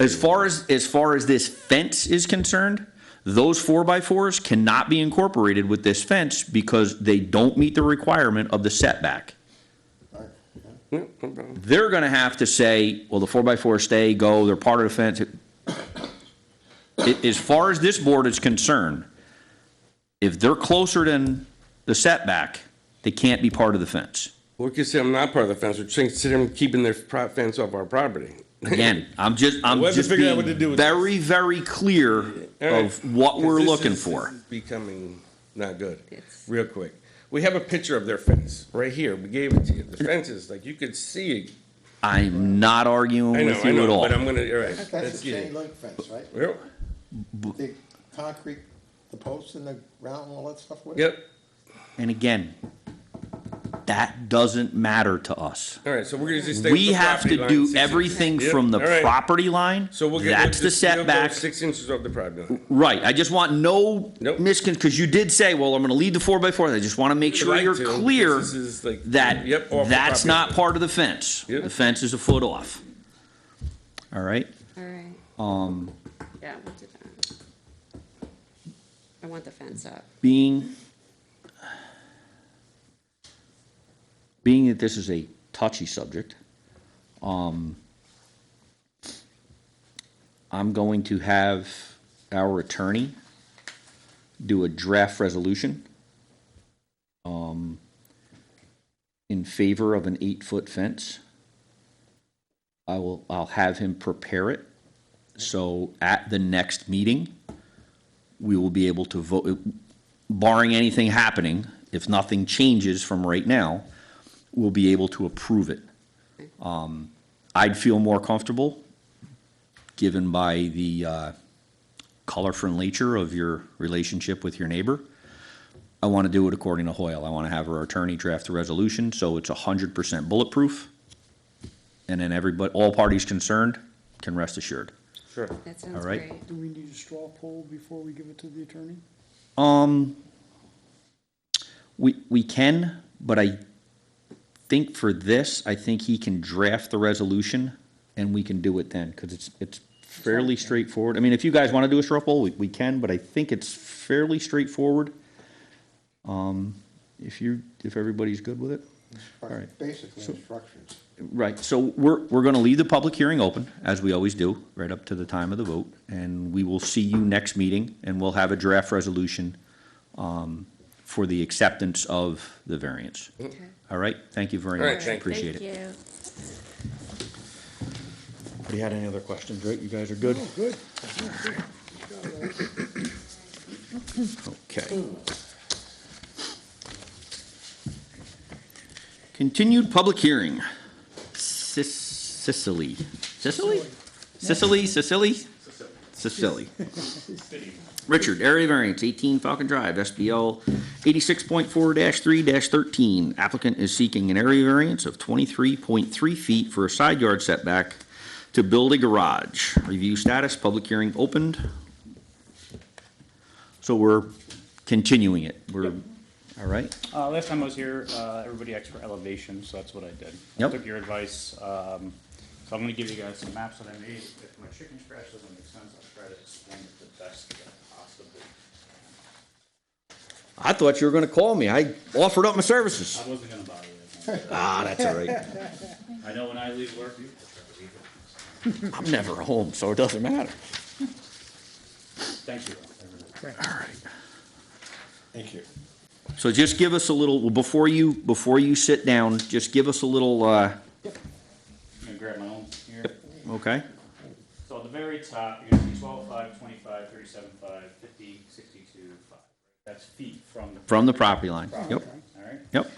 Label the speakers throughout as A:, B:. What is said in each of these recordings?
A: As far as, as far as this fence is concerned, those four by fours cannot be incorporated with this fence because they don't meet the requirement of the setback. They're gonna have to say, well, the four by fours stay, go, they're part of the fence. A- As far as this board is concerned, if they're closer than the setback, they can't be part of the fence.
B: We could say I'm not part of the fence, we're considering keeping their pro- fence off our property.
A: Again, I'm just, I'm
B: We'll have to
A: just
B: figure out what to do
A: being
B: with this.
A: very, very clear
B: All right.
A: of what we're
B: This
A: looking
B: is-
A: for.
B: this is Becoming not good,
C: It's-
B: real quick. We have a picture of their fence, right here, we gave it to you. The fence is, like, you could see it.
A: I'm not arguing
B: I know,
A: with
B: I
A: you at
B: know,
A: all.
B: but I'm gonna, all right,
D: That's a
B: let's get
D: chain
B: it.
D: link fence, right?
B: Yep,
D: The concrete, the posts and the ground and all that stuff with it?
B: yep,
A: And again, that doesn't matter to us.
B: all right, so we're gonna just stay with
A: We
B: the
A: have
B: property
A: to
B: line.
A: do
B: six inches.
A: everything
B: Yep,
A: from the
B: all right.
A: property line.
B: So we'll get.
A: That's the
B: we'll just- we'll go
A: setback.
B: Six inches off the property line.
A: Right, I just want no
B: Nope.
A: miscon, because you did say, well, I'm gonna lead the four by four, I just wanna make sure
B: Like
A: you're
B: to, 'cause
A: clear
B: this is like-
A: that
B: Yep, off the
A: that's
B: property
A: not
B: line.
A: part of the fence.
B: Yep.
A: The fence is a foot off. All right,
C: All right,
A: um,
C: yeah, we'll do that. I want the fence up.
A: being being that this is a touchy subject, um, I'm going to have our attorney do a draft resolution um, in favor of an eight-foot fence. I will, I'll have him prepare it, so at the next meeting, we will be able to vote, barring anything happening, if nothing changes from right now, we'll be able to approve it. Um, I'd feel more comfortable, given by the uh, colorful nature of your relationship with your neighbor. I want to do it according to Hoyle. I want to have our attorney draft the resolution, so it's 100% bulletproof. And then everybody, all parties concerned can rest assured.
B: Sure.
C: That sounds
A: All right.
C: great.
E: Do we need a straw poll before we give it to the attorney?
A: Um, we, we can, but I think for this, I think he can draft the resolution and we can do it then, because it's, it's fairly straightforward. I mean, if you guys want to do a straw poll, we, we can, but I think it's fairly straightforward. Um, if you, if everybody's good with it. All right.
D: Basically instructions.
A: Right, so we're, we're gonna leave the public hearing open, as we always do, right up to the time of the vote, and we will see you next meeting, and we'll have a draft resolution um, for the acceptance of the variance.
C: Okay.
A: All right, thank you very
B: All right,
A: much,
B: thank you.
A: appreciate it.
C: Thank you.
A: Anybody had any other questions, right, you guys are good?
E: Good.
A: Okay. Continued public hearing. Sis- Sicily, Sicily? Sicily, Sicily? Sicily. Richard, area variance, eighteen Falcon Drive, SBL eighty-six point four three thirteen. Applicant is seeking an area variance of twenty-three point three feet for a side yard setback to build a garage. Review status, public hearing opened. So we're continuing it. We're, all right?
F: Uh, last time I was here, uh, everybody asked for elevation, so that's what I did. I
A: Yep.
F: Took your advice, um, so I'm gonna give you guys some maps that I made, if my chicken scratch doesn't make sense, I'll try to explain it the best that I possibly.
A: I thought you were gonna call me. I offered up my services.
F: I wasn't gonna bother you.
A: Ah, that's all right.
F: I know when I leave work, you try to leave it.
A: I'm never home, so it doesn't matter.
F: Thank you. though, everybody.
D: Thank you.
A: So just give us a little, well, before you, before you sit down, just give us a little, uh,
F: I'm gonna grab my own here.
A: okay?
F: So at the very top, you're gonna see twelve, five, twenty-five, thirty-seven, five, fifty, sixty-two, five. That's feet from the.
A: From the property line. Yep,
F: Alright?
A: yep.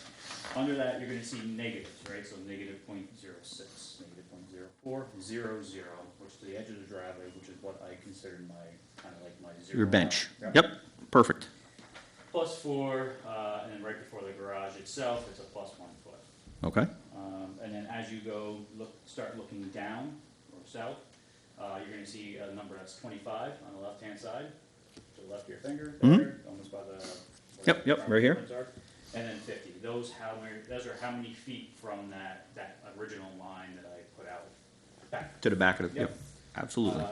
F: Under that, you're gonna see negatives, right, so negative point zero six, negative point zero four, zero zero, which to the edge of the driveway, which is what I considered my, kinda like my zero.
A: Your bench.
F: line.
A: Yep, perfect.
F: Plus four, uh, and then right before the garage itself, it's a plus one foot.
A: Okay,
F: Um, and then as you go, look, start looking down or south, uh, you're gonna see a number that's twenty-five on the left-hand side, to the left of your finger, there, almost by the. where
A: Mm-hmm. Yep,
F: the
A: yep,
F: property
A: right here.
F: lines are, And then fifty, those how many, those are how many feet from that, that original line that I put out back.
A: to the back of the, yep.
G: Absolutely.
A: Uh,